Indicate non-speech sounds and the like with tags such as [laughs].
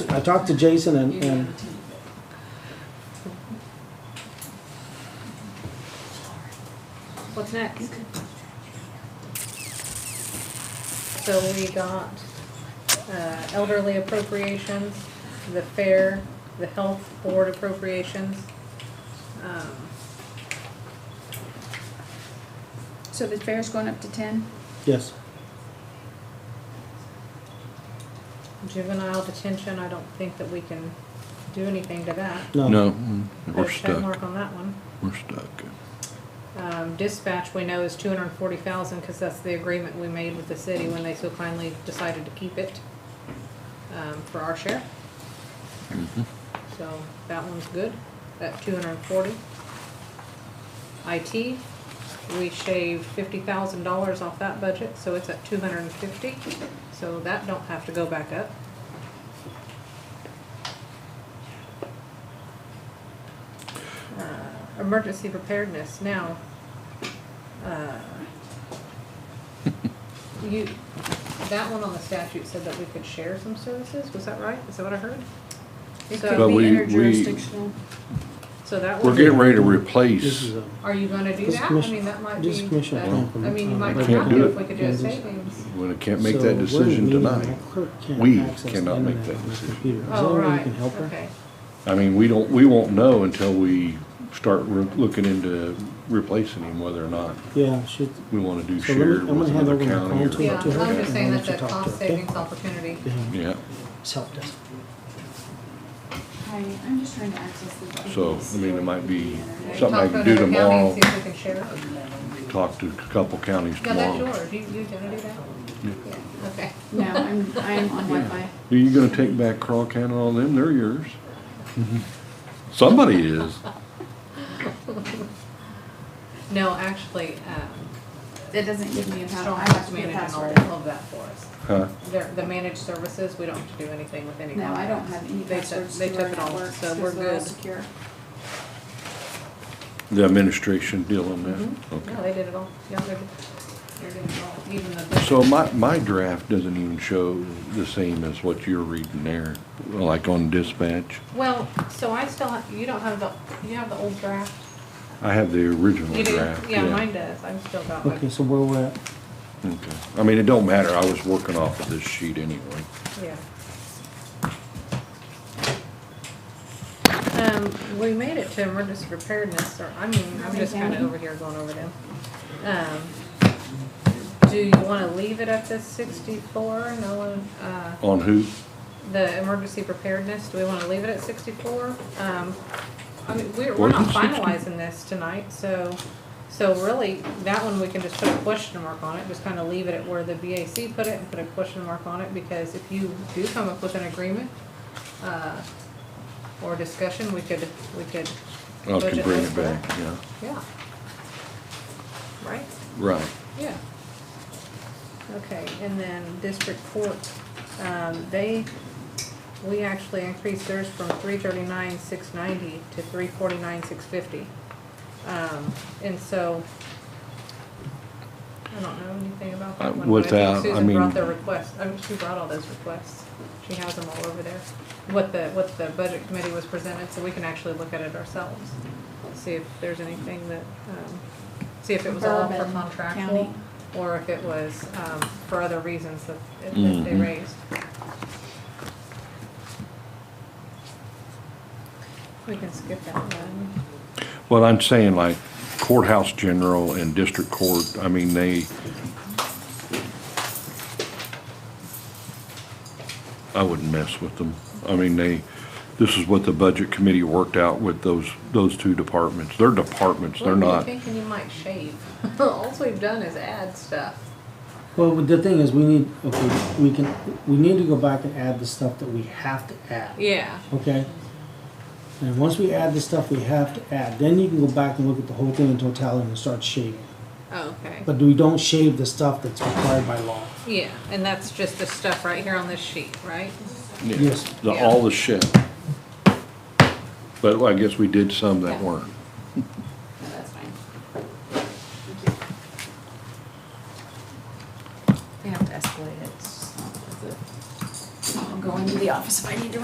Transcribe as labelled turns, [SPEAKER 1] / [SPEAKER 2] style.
[SPEAKER 1] I talked to Jason and,
[SPEAKER 2] You
[SPEAKER 1] and
[SPEAKER 2] have a team.
[SPEAKER 3] What's next? So we got uh, elderly appropriations, the fair, the health board appropriations. Um,
[SPEAKER 4] So the fair's going up to ten?
[SPEAKER 1] yes,
[SPEAKER 3] Juvenile detention, I don't think that we can do anything to that.
[SPEAKER 1] no.
[SPEAKER 5] No,
[SPEAKER 3] Put
[SPEAKER 5] we're
[SPEAKER 3] a check mark
[SPEAKER 5] stuck.
[SPEAKER 3] on that one.
[SPEAKER 5] We're stuck.
[SPEAKER 3] Um, Dispatch, we know is two hundred and forty thousand, because that's the agreement we made with the city when they so kindly decided to keep it um, for our share.
[SPEAKER 5] Mm-hmm.
[SPEAKER 3] So that one's good, at two hundred and forty. IT, we shaved fifty thousand dollars off that budget, so it's at two hundred and fifty, so that don't have to go back up. Uh, Emergency preparedness, now, uh, you, that one on the statute said that we could share some services, was that right? Is that what I heard?
[SPEAKER 4] It
[SPEAKER 3] So-
[SPEAKER 5] But
[SPEAKER 4] could be
[SPEAKER 5] we- we-
[SPEAKER 4] interjurisdictional.
[SPEAKER 3] So that
[SPEAKER 5] We're
[SPEAKER 3] one,
[SPEAKER 5] getting ready to
[SPEAKER 1] This
[SPEAKER 5] replace,
[SPEAKER 1] is um, a,
[SPEAKER 3] are you gonna do
[SPEAKER 1] This
[SPEAKER 3] that? I
[SPEAKER 1] commission-
[SPEAKER 3] mean, that might be,
[SPEAKER 1] this commission
[SPEAKER 3] that-
[SPEAKER 1] can't-
[SPEAKER 3] I mean, you might
[SPEAKER 1] I
[SPEAKER 3] not
[SPEAKER 5] can't
[SPEAKER 3] have
[SPEAKER 5] do
[SPEAKER 3] to
[SPEAKER 5] it.
[SPEAKER 3] if we could do a
[SPEAKER 1] Can't do-
[SPEAKER 3] savings.
[SPEAKER 5] we can't make
[SPEAKER 1] So
[SPEAKER 5] that
[SPEAKER 1] what does it
[SPEAKER 5] decision
[SPEAKER 1] mean when
[SPEAKER 5] tonight.
[SPEAKER 1] my clerk can't
[SPEAKER 5] We
[SPEAKER 1] access the
[SPEAKER 5] cannot make
[SPEAKER 1] internet
[SPEAKER 5] that
[SPEAKER 1] on my
[SPEAKER 5] decision.
[SPEAKER 1] computer? Is there
[SPEAKER 3] Oh,
[SPEAKER 1] a way you
[SPEAKER 3] right,
[SPEAKER 1] can help her?
[SPEAKER 3] okay.
[SPEAKER 5] I mean, we don't, we won't know until we start re- looking into replacing him, whether or not
[SPEAKER 1] Yeah, she,
[SPEAKER 5] we want to do
[SPEAKER 1] So let me-
[SPEAKER 5] shared
[SPEAKER 1] I'm gonna
[SPEAKER 5] with
[SPEAKER 1] hand
[SPEAKER 5] another
[SPEAKER 1] over my
[SPEAKER 5] county.
[SPEAKER 1] phone
[SPEAKER 5] or-
[SPEAKER 1] to
[SPEAKER 3] Yeah,
[SPEAKER 1] her
[SPEAKER 3] I'm just
[SPEAKER 1] and
[SPEAKER 3] saying
[SPEAKER 1] I'll
[SPEAKER 3] that's
[SPEAKER 1] let you talk
[SPEAKER 3] a
[SPEAKER 1] to her,
[SPEAKER 3] cost
[SPEAKER 1] okay?
[SPEAKER 3] savings opportunity.
[SPEAKER 5] Yeah,
[SPEAKER 1] it's helped us.
[SPEAKER 4] Hi, I'm just trying to access the.
[SPEAKER 5] so, I mean, it might be
[SPEAKER 3] Talk
[SPEAKER 5] something I
[SPEAKER 3] to
[SPEAKER 5] can
[SPEAKER 3] another county
[SPEAKER 5] do
[SPEAKER 3] and
[SPEAKER 5] tomorrow,
[SPEAKER 3] See if we can share it.
[SPEAKER 5] talk to a couple counties
[SPEAKER 3] Yeah, that's
[SPEAKER 5] tomorrow.
[SPEAKER 3] yours, you, you gonna do that? Yeah, okay.
[SPEAKER 4] No, I'm, I'm on Wi-Fi.
[SPEAKER 5] Are you gonna take back Crawl County and all them? They're yours.
[SPEAKER 1] Mm-hmm.
[SPEAKER 5] Somebody is.
[SPEAKER 3] No, actually, um,
[SPEAKER 4] It doesn't give me a
[SPEAKER 3] Strong
[SPEAKER 4] password. I have
[SPEAKER 3] House
[SPEAKER 4] to put a
[SPEAKER 3] Management all
[SPEAKER 4] password.
[SPEAKER 3] of that for us.
[SPEAKER 5] Huh?
[SPEAKER 3] They're, the managed services, we don't have to do anything with any.
[SPEAKER 4] No, I don't
[SPEAKER 3] contracts.
[SPEAKER 4] have any
[SPEAKER 3] They took-
[SPEAKER 4] passwords
[SPEAKER 3] They
[SPEAKER 4] to our
[SPEAKER 3] took it all,
[SPEAKER 4] networks
[SPEAKER 3] so we're
[SPEAKER 4] because they're all
[SPEAKER 3] good.
[SPEAKER 4] secure.
[SPEAKER 5] The administration deal on that?
[SPEAKER 3] Mhm.
[SPEAKER 5] Okay.
[SPEAKER 3] No, they did it all, yeah, they're, they're doing it all, even the.
[SPEAKER 5] So my, my draft doesn't even show the same as what you're reading there, like on dispatch.
[SPEAKER 3] Well, so I still, have- you don't have the, you have the old draft?
[SPEAKER 5] I have the original
[SPEAKER 3] You do?
[SPEAKER 5] draft, yeah.
[SPEAKER 3] Yeah, mine does, I'm still got
[SPEAKER 1] Okay,
[SPEAKER 3] mine,
[SPEAKER 1] so where we're at,
[SPEAKER 5] Okay. I mean, it don't matter, I was working off of this sheet anyway.
[SPEAKER 3] yeah. Um, we made it to emergency preparedness, or, I mean, I'm just kinda over here going over them. Um, do you wanna leave it at the sixty-four, no one, uh?
[SPEAKER 5] On who?
[SPEAKER 3] the emergency preparedness, do we wanna leave it at sixty-four? Um, I mean, we're, we're
[SPEAKER 5] Wasn't
[SPEAKER 3] not
[SPEAKER 5] 60?
[SPEAKER 3] finalizing this tonight, so, so really, that one, we can just put a question mark on it, just kinda leave it at where the BAC put it and put a question mark on it, because if you do come up with an agreement, uh, or discussion, we could, we could.
[SPEAKER 5] I can
[SPEAKER 3] budget
[SPEAKER 5] bring
[SPEAKER 3] this
[SPEAKER 5] it
[SPEAKER 3] for
[SPEAKER 5] back,
[SPEAKER 3] that.
[SPEAKER 5] yeah.
[SPEAKER 3] Yeah. Right?
[SPEAKER 5] Right.
[SPEAKER 3] Yeah. Okay, and then district court, um, they, we actually increased theirs from three thirty-nine, six ninety to three forty-nine, six fifty. Um, and so, I don't know anything about
[SPEAKER 5] Uh,
[SPEAKER 3] that one. but I think
[SPEAKER 5] without- I
[SPEAKER 3] Susan
[SPEAKER 5] mean-
[SPEAKER 3] brought their request, I mean, Oh, she brought all those requests, she has them all over there, what the, what the budget committee was presented, so we can actually look at it ourselves. See if there's anything that, um, see if it was all for
[SPEAKER 4] Bourbon
[SPEAKER 3] contractual,
[SPEAKER 4] County.
[SPEAKER 3] or if it was, um, for other reasons that, that they
[SPEAKER 5] Mhm.
[SPEAKER 3] raised. We can skip that one.
[SPEAKER 5] Well, I'm saying like courthouse general and district court, I mean, they. I wouldn't mess with them. I mean, they, this is what the budget committee worked out with those, those two departments. They're departments, they're
[SPEAKER 3] What were you
[SPEAKER 5] not,
[SPEAKER 3] Thinking you might shave. [laughs] All we've done is add stuff.
[SPEAKER 1] well, but the thing is, we need, okay, we can, we need to go back and add the stuff that we have to add.
[SPEAKER 3] Yeah.
[SPEAKER 1] Okay? And once we add the stuff we have to add, then you can go back and look at the whole thing in totality and start shaving.
[SPEAKER 3] Oh, Okay.
[SPEAKER 1] But we don't shave the stuff that's required by law.
[SPEAKER 3] Yeah, and that's just the stuff right here on this sheet, right?
[SPEAKER 5] yeah,
[SPEAKER 1] Yes.
[SPEAKER 5] the, all the shit. But I guess we did some that weren't.
[SPEAKER 4] No, that's fine. They have to escalate it. It's just not worth it. I'll go into the office if I need to